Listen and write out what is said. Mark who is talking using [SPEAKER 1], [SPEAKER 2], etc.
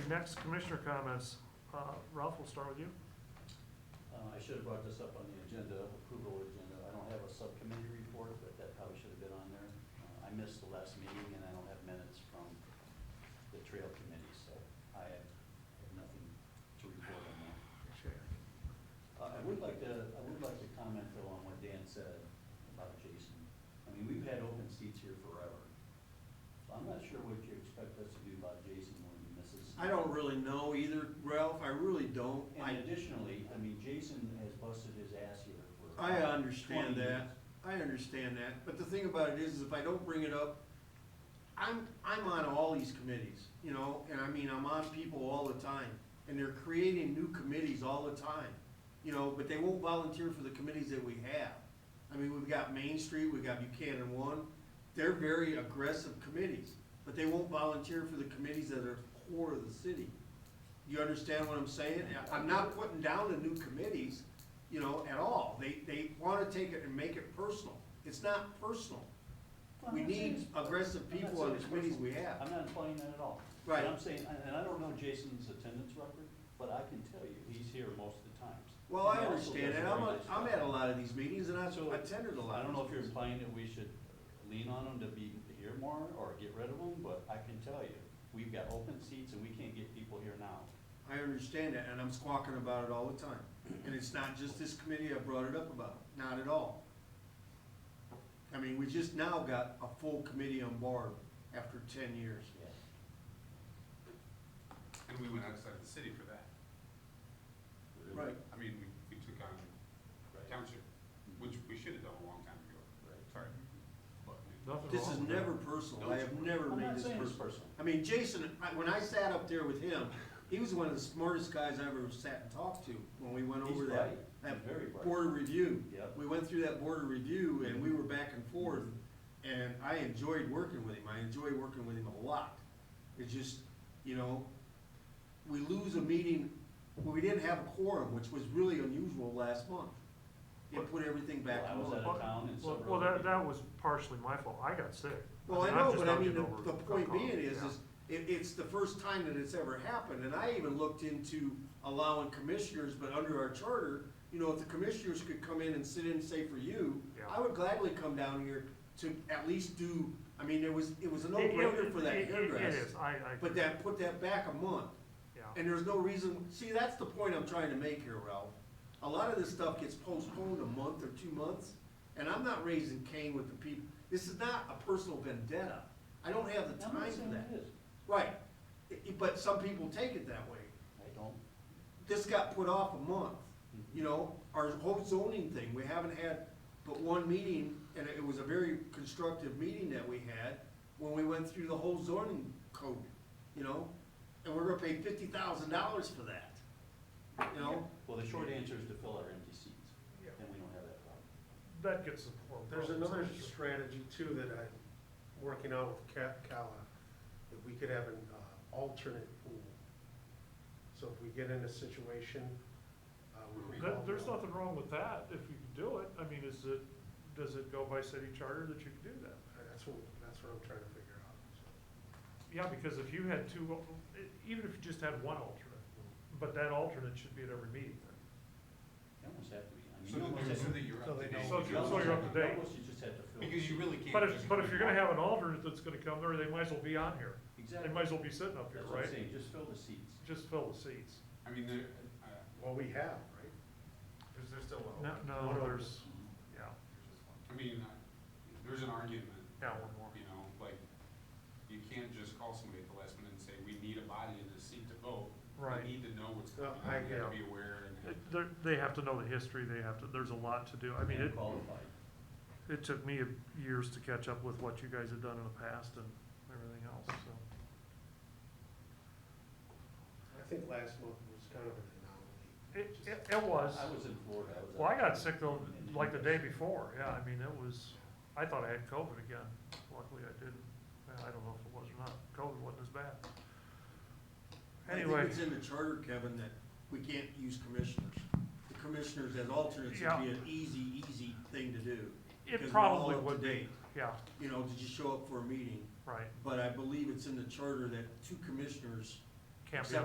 [SPEAKER 1] Next, commissioner comments. Uh, Ralph, we'll start with you.
[SPEAKER 2] Uh, I should have brought this up on the agenda, approval agenda. I don't have a subcommittee report, but that probably should have been on there. Uh, I missed the last meeting and I don't have minutes from the trail committee, so I have have nothing to report on that.
[SPEAKER 1] Okay.
[SPEAKER 2] Uh, I would like to, I would like to comment though on what Dan said about Jason. I mean, we've had open seats here forever. So I'm not sure what you expect us to do about Jason when he misses.
[SPEAKER 3] I don't really know either, Ralph, I really don't. I,
[SPEAKER 2] And additionally, I mean, Jason has busted his ass here for.
[SPEAKER 3] I understand
[SPEAKER 2] 20 years.
[SPEAKER 3] that, I understand that, but the thing about it is, is if I don't bring it up, I'm, I'm on all these committees, you know, and I mean, I'm on people all the time, and they're creating new committees all the time, you know, but they won't volunteer for the committees that we have. I mean, we've got Main Street, we've got Buchanan One, they're very aggressive committees, but they won't volunteer for the committees that are core of the city. You understand what I'm saying? And I'm not putting down the new committees, you know, at all. They, they wanna take it and make it personal. It's not personal.
[SPEAKER 2] Well,
[SPEAKER 3] We
[SPEAKER 2] I'm not saying
[SPEAKER 3] need
[SPEAKER 2] it's-
[SPEAKER 3] aggressive
[SPEAKER 2] I'm not
[SPEAKER 3] people on
[SPEAKER 2] saying
[SPEAKER 3] the
[SPEAKER 2] it's
[SPEAKER 3] committees
[SPEAKER 2] personal.
[SPEAKER 3] we have.
[SPEAKER 2] I'm not implying that at all.
[SPEAKER 3] Right.
[SPEAKER 2] But I'm saying, and- and I don't know Jason's attendance record, but I can tell you, he's here most of the times.
[SPEAKER 3] Well, I
[SPEAKER 2] And he also
[SPEAKER 3] understand
[SPEAKER 2] does a
[SPEAKER 3] that. I'm,
[SPEAKER 2] very
[SPEAKER 3] a-
[SPEAKER 2] nice
[SPEAKER 3] I'm
[SPEAKER 2] job.
[SPEAKER 3] at a lot of these meetings and I've
[SPEAKER 2] So,
[SPEAKER 3] attended a lot.
[SPEAKER 2] I don't know
[SPEAKER 3] of
[SPEAKER 2] if you're
[SPEAKER 3] these.
[SPEAKER 2] implying that we should lean on them to be here more or get rid of them, but I can tell you, we've got open seats and we can't get people here now.
[SPEAKER 3] I understand that, and I'm squawking about it all the time. And it's not just this committee I brought it up about, not at all. I mean, we just now got a full committee on board after ten years.
[SPEAKER 2] Yeah.
[SPEAKER 4] And we went outside the city for that.
[SPEAKER 3] Right.
[SPEAKER 4] I mean, we, we took on
[SPEAKER 2] Right.
[SPEAKER 4] township, which we should have done a long time ago. Sorry. But we-
[SPEAKER 1] Nothing
[SPEAKER 3] This
[SPEAKER 1] wrong
[SPEAKER 3] is
[SPEAKER 1] with that.
[SPEAKER 3] never personal. I have never
[SPEAKER 2] I'm
[SPEAKER 3] made
[SPEAKER 2] not
[SPEAKER 3] this
[SPEAKER 2] saying it's
[SPEAKER 3] personal.
[SPEAKER 2] personal.
[SPEAKER 3] I mean, Jason, I- when I sat up there with him, he was one of the smartest guys I ever sat and talked to when we went
[SPEAKER 2] He's
[SPEAKER 3] over that,
[SPEAKER 2] bright. He's
[SPEAKER 3] that
[SPEAKER 2] very bright.
[SPEAKER 3] board review.
[SPEAKER 2] Yep.
[SPEAKER 3] We went through that board review and we were back and forth and I enjoyed working with him. I enjoy working with him a lot. It's just, you know, we lose a meeting, well, we didn't have a quorum, which was really unusual last month. It put everything back
[SPEAKER 2] Well, I
[SPEAKER 3] in
[SPEAKER 2] was
[SPEAKER 3] order.
[SPEAKER 2] out of town and
[SPEAKER 1] Well,
[SPEAKER 2] several.
[SPEAKER 1] well,
[SPEAKER 2] other
[SPEAKER 1] that, that
[SPEAKER 2] people-
[SPEAKER 1] was partially my fault. I got sick.
[SPEAKER 3] Well, I
[SPEAKER 1] mean, I'm
[SPEAKER 3] know,
[SPEAKER 1] just
[SPEAKER 3] but
[SPEAKER 1] now
[SPEAKER 3] I mean,
[SPEAKER 1] getting
[SPEAKER 3] the,
[SPEAKER 1] over
[SPEAKER 3] the point
[SPEAKER 1] cough.
[SPEAKER 3] being is,
[SPEAKER 1] Yeah.
[SPEAKER 3] is it, it's the first time that it's ever happened, and I even looked into allowing commissioners, but under our charter, you know, if the commissioners could come in and sit in, say for you,
[SPEAKER 1] Yeah.
[SPEAKER 3] I would gladly come down here to at least do, I mean, there was, it was a
[SPEAKER 1] It- it-
[SPEAKER 3] no-brainer for
[SPEAKER 1] it-
[SPEAKER 3] that
[SPEAKER 1] it- It
[SPEAKER 3] hairdress.
[SPEAKER 1] is, I, I.
[SPEAKER 3] But
[SPEAKER 1] agree.
[SPEAKER 3] that, put that back a month,
[SPEAKER 1] Yeah,
[SPEAKER 3] and there's no reason, see, that's the point I'm trying to make here, Ralph. A lot of this stuff gets postponed a month or two months, and I'm not raising Cain with the people. This is not a personal vendetta. I don't have the
[SPEAKER 2] I'm not
[SPEAKER 3] time for
[SPEAKER 2] saying
[SPEAKER 3] that.
[SPEAKER 2] it is.
[SPEAKER 3] Right, I- I- but some people take it that way.
[SPEAKER 2] I don't.
[SPEAKER 3] This got put off a month, you know, our whole zoning thing, we haven't had but one meeting, and it was a very constructive meeting that we had when we went through the whole zoning code, you know, and we're gonna pay fifty thousand dollars for that, you know?
[SPEAKER 2] Well, the short answer is to fill our empty seats,
[SPEAKER 5] Yeah.
[SPEAKER 2] and we don't have that problem.
[SPEAKER 1] that gets support.
[SPEAKER 5] There's another strategy too that I'm working out with Cap Cala, that we could have an uh, alternate pool. So if we get in a situation, uh, we can.
[SPEAKER 1] That, there's nothing wrong with that, if you can do it. I mean, is it, does it go by city charter that you can do that?
[SPEAKER 5] That's what, that's what I'm trying to figure out. so.
[SPEAKER 1] Yeah, because if you had two, al- even if you just had one alternate, but that alternate should be at every meeting then.
[SPEAKER 2] They almost have to be. I mean,
[SPEAKER 4] So
[SPEAKER 2] you
[SPEAKER 4] that
[SPEAKER 2] almost
[SPEAKER 4] they- so
[SPEAKER 2] have-
[SPEAKER 4] that you're
[SPEAKER 5] So
[SPEAKER 4] up
[SPEAKER 5] they
[SPEAKER 4] to
[SPEAKER 5] know.
[SPEAKER 4] date.
[SPEAKER 1] So-
[SPEAKER 2] you
[SPEAKER 1] so
[SPEAKER 2] almost
[SPEAKER 1] you're up
[SPEAKER 2] have to-
[SPEAKER 1] to date.
[SPEAKER 2] Almost you just have to fill. the
[SPEAKER 4] Because you
[SPEAKER 2] seat.
[SPEAKER 4] really can't.
[SPEAKER 1] But if,
[SPEAKER 4] just
[SPEAKER 1] but if you're gonna
[SPEAKER 4] walk.
[SPEAKER 1] have an alternate that's gonna come there, they might as well be on here. They
[SPEAKER 2] Exactly.
[SPEAKER 1] might as well be sitting up here,
[SPEAKER 2] That's what
[SPEAKER 1] right?
[SPEAKER 2] I'm saying, just fill the seats.
[SPEAKER 1] Just fill the seats.
[SPEAKER 4] I mean, there, uh,
[SPEAKER 5] Well, we have, right? Because there's still
[SPEAKER 3] Oh,
[SPEAKER 1] No, no, there's, yeah,
[SPEAKER 4] I mean, I- there's an argument.
[SPEAKER 1] Yeah, one more.
[SPEAKER 4] You know, like, you can't just call somebody at the last minute and say, we need a body in this seat to vote.
[SPEAKER 1] Right.
[SPEAKER 4] We need to know what's
[SPEAKER 5] No,
[SPEAKER 4] coming,
[SPEAKER 5] I
[SPEAKER 4] we have to
[SPEAKER 5] get
[SPEAKER 4] be aware and.
[SPEAKER 1] It- they're, they have to know the history, they have to, there's a lot to do. I mean, it,
[SPEAKER 2] Qualified.
[SPEAKER 1] it took me years to catch up with what you guys had done in the past and everything else, so.
[SPEAKER 5] I think last month was kind of an anomaly.
[SPEAKER 1] It, it, it was,
[SPEAKER 2] I was in Florida. I was
[SPEAKER 1] well, I
[SPEAKER 2] out
[SPEAKER 1] got
[SPEAKER 2] there.
[SPEAKER 1] sick though,
[SPEAKER 2] And-
[SPEAKER 1] like the day before, yeah, I mean, it was, I thought I had COVID again. Luckily, I didn't. Well, I don't know if it was or not. COVID wasn't as bad.
[SPEAKER 3] I
[SPEAKER 1] Anyway.
[SPEAKER 3] think it's in the charter, Kevin, that we can't use commissioners. The commissioners as alternates would
[SPEAKER 1] Yeah.
[SPEAKER 3] be an easy, easy thing to do.
[SPEAKER 1] It
[SPEAKER 3] because we're all
[SPEAKER 1] probably
[SPEAKER 3] up to
[SPEAKER 1] would be,
[SPEAKER 3] date.
[SPEAKER 1] yeah,
[SPEAKER 3] You know, did you show up for a meeting?
[SPEAKER 1] right,
[SPEAKER 3] But I believe it's in the charter that two commissioners
[SPEAKER 1] can't be
[SPEAKER 3] Except